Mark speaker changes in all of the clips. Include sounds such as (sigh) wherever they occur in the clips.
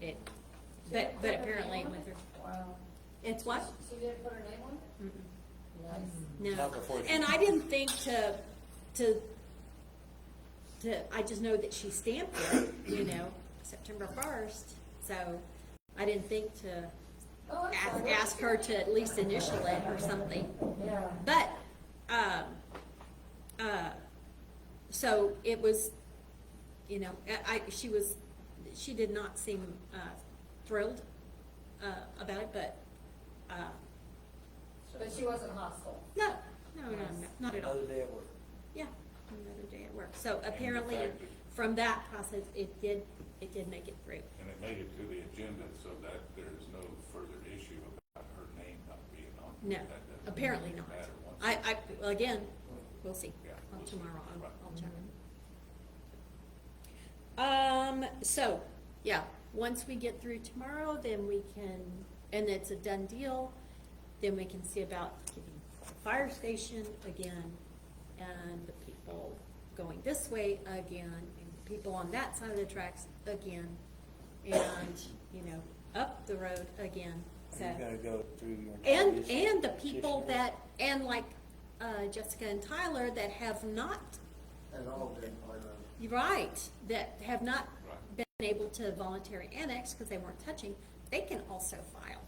Speaker 1: it, but, but apparently it went through.
Speaker 2: Wow.
Speaker 1: It's what?
Speaker 2: She didn't put her name on it?
Speaker 1: Mm-mm.
Speaker 2: Nice.
Speaker 1: No.
Speaker 3: Not before she-
Speaker 1: And I didn't think to, to, to, I just know that she stamped it, you know, September first. So I didn't think to
Speaker 2: Oh, I'm
Speaker 1: ask,
Speaker 2: sorry.
Speaker 1: ask her to at least initial it or something.
Speaker 2: Yeah.
Speaker 1: But, um, uh, so it was, you know, I, I- she was, she did not seem, uh, thrilled, uh, about it, but, uh,
Speaker 2: But she wasn't hostile.
Speaker 1: no, no, no, no, not at all.
Speaker 3: Another day at work.
Speaker 1: Yeah, another day at work. So apparently,
Speaker 4: fact that-
Speaker 1: from that process, it did, it did make it through.
Speaker 4: And it made it to the agenda so that there is no further issue about her name not being on.
Speaker 1: No,
Speaker 4: That doesn't
Speaker 1: apparently not.
Speaker 4: matter once
Speaker 1: I,
Speaker 4: it's-
Speaker 1: I, well, again, we'll see.
Speaker 4: Yeah,
Speaker 1: Well,
Speaker 4: we'll see.
Speaker 1: Tomorrow, I'll,
Speaker 4: Right.
Speaker 1: I'll check. Um, so, yeah, once we get through tomorrow, then we can, and it's a done deal, then we can see about getting the fire station again and the people going this way again and the people on that side of the tracks again and, you know, up the road again, so.
Speaker 3: You're gonna go through your.
Speaker 1: And,
Speaker 3: notice
Speaker 1: and the people
Speaker 3: petitioner.
Speaker 1: that, and like, uh, Jessica and Tyler that have not,
Speaker 5: At all during playground.
Speaker 1: you're right, that have not
Speaker 4: Right.
Speaker 1: been able to voluntary annex because they weren't touching, they can also file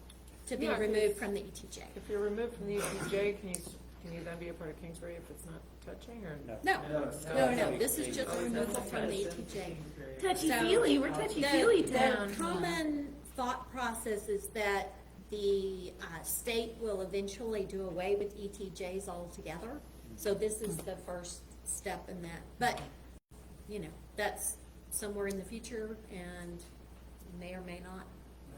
Speaker 1: to be
Speaker 6: Yeah.
Speaker 1: removed from the E ETJ.
Speaker 6: If you're removed from the ETJ, can you, can you then be a part of Kingsbury if it's not touching or?
Speaker 3: No.
Speaker 1: No,
Speaker 5: No,
Speaker 1: no,
Speaker 5: no.
Speaker 1: no, this is just
Speaker 6: Oh,
Speaker 1: removal
Speaker 6: that's
Speaker 1: from the
Speaker 6: right.
Speaker 1: ETJ.
Speaker 7: Touchy-feely, we're touchy-feely
Speaker 1: The,
Speaker 7: town.
Speaker 1: the common thought process is that the, uh, state will eventually do away with ETJs altogether. So this is the first step in that, but, you know, that's somewhere in the future and may or may not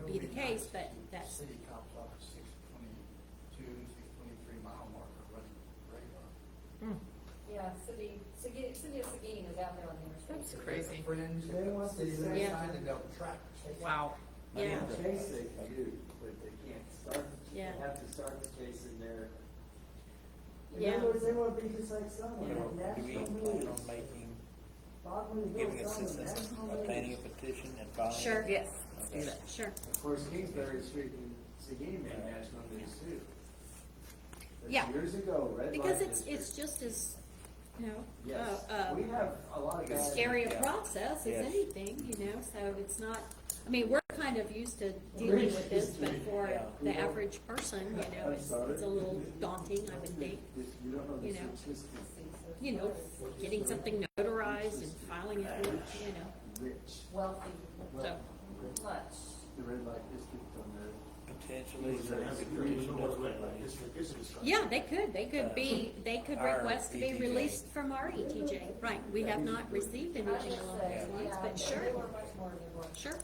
Speaker 1: be the case, but that's,
Speaker 5: City cops off at six twenty-two, six twenty-three mile marker running radar.
Speaker 2: Yeah, City, City, City of Seguin is out there on the interstate.
Speaker 6: That's crazy.
Speaker 5: Friends, they want to say.
Speaker 1: Yeah.
Speaker 5: Sign and they'll track.
Speaker 6: Wow.
Speaker 1: yeah.
Speaker 8: Chase they do, but they can't start, they
Speaker 1: Yeah.
Speaker 8: have to start the chase in their. In
Speaker 1: Yeah.
Speaker 8: other words, they wanna be just like
Speaker 3: You
Speaker 8: someone,
Speaker 3: know,
Speaker 8: like
Speaker 3: do we
Speaker 8: national
Speaker 3: plan
Speaker 8: news.
Speaker 3: on making,
Speaker 8: Bob Moon
Speaker 3: giving
Speaker 8: Hill's on the
Speaker 3: assistance
Speaker 8: national
Speaker 3: by
Speaker 8: news.
Speaker 3: planning a petition and filing? it?
Speaker 1: Sure.
Speaker 6: Yes.
Speaker 3: Okay.
Speaker 1: Sure,
Speaker 8: Of course, Kingsbury Street and Seguin made national news too. But
Speaker 1: Yeah.
Speaker 8: Years ago, red light
Speaker 1: because it's,
Speaker 8: district.
Speaker 1: it's just as, you know,
Speaker 8: Yes,
Speaker 1: uh, uh,
Speaker 8: we have a lot of guys.
Speaker 1: scary a
Speaker 3: Yeah.
Speaker 1: process as
Speaker 3: Yes.
Speaker 1: anything, you know, so it's not, I mean, we're kind of used to dealing with this, but for
Speaker 3: Yeah.
Speaker 1: the average person, you know,
Speaker 8: I'm
Speaker 1: it's,
Speaker 8: sorry.
Speaker 1: it's a little daunting, I would think.
Speaker 8: This- You don't know
Speaker 1: you
Speaker 8: this
Speaker 1: know.
Speaker 8: existence.
Speaker 1: You know, getting something notarized and filing it, with, you know,
Speaker 8: rich,
Speaker 2: Wealthy,
Speaker 8: well, rich.
Speaker 2: much.
Speaker 8: the red light district on there.
Speaker 3: Potentially. there is a petition that's been raised.
Speaker 1: yeah, they could, they could be, they could
Speaker 3: Our
Speaker 1: request
Speaker 8: E
Speaker 1: to be
Speaker 3: ETJ.
Speaker 1: released from our ETJ, right, we have not received
Speaker 2: I would
Speaker 1: anything
Speaker 2: say,
Speaker 1: along those lines,
Speaker 2: yeah,
Speaker 1: but sure,
Speaker 2: They were much more than they were.
Speaker 1: sure,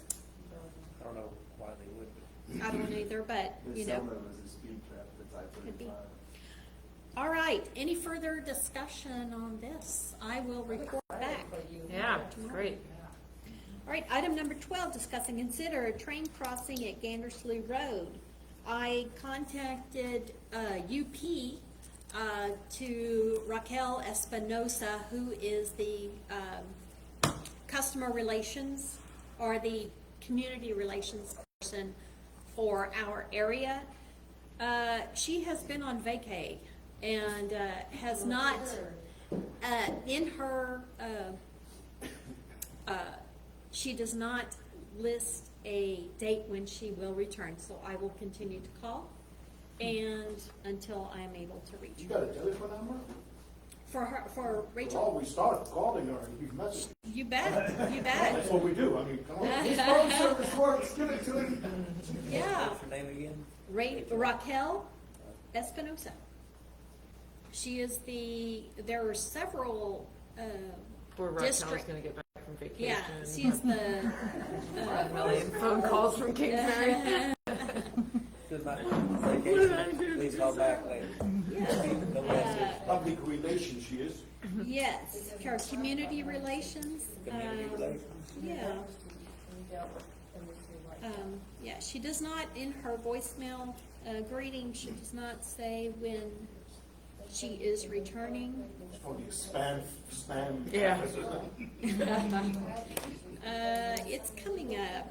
Speaker 3: I don't know why they would, but
Speaker 1: I don't either, but, you
Speaker 8: There's
Speaker 1: know.
Speaker 8: someone was a speed trap that's I
Speaker 1: Could be.
Speaker 8: thirty-five.
Speaker 1: All right, any further discussion on this? I will report back.
Speaker 2: For you.
Speaker 6: Yeah, great.
Speaker 1: All right, item number twelve, discuss and consider a train crossing at Gandersley Road. I contacted, uh, UP, uh, to Raquel Espinosa, who is the, um, customer relations or the community relations person for our area. Uh, she has been on vacay and, uh, has not, uh, in her, uh, uh, she does not list a date when she will return, so I will continue to call and until I am able to reach
Speaker 9: You
Speaker 1: her.
Speaker 9: got a telephone number?
Speaker 1: For her, for
Speaker 9: Well,
Speaker 1: Rachel,
Speaker 9: we start calling her and you message.
Speaker 1: you bet, you
Speaker 9: That's
Speaker 1: bet.
Speaker 9: what we do, I mean, come on. This phone service works, give it to him.
Speaker 1: Yeah,
Speaker 3: what's her name again?
Speaker 1: Ra- Raquel Espinosa. She is the, there are several, uh,
Speaker 6: Poor Raquel's
Speaker 1: district.
Speaker 6: gonna get back from vacation.
Speaker 1: Yeah, she's the,
Speaker 6: A million phone calls from Kingsbury.
Speaker 3: Good night. Vacation. Please call back later.
Speaker 1: yeah, uh,
Speaker 3: No message.
Speaker 9: Public relations, she is.
Speaker 1: yes, her community relations.
Speaker 3: Community
Speaker 1: um,
Speaker 3: relations.
Speaker 1: Yeah.
Speaker 2: We dealt with them this year, like-
Speaker 1: Um, yeah, she does not, in her voicemail uh, greeting, she does not say when she is returning. (laughs)
Speaker 9: It's probably spam, spam. (laughs)
Speaker 6: Yeah.
Speaker 1: Uh, it's coming up.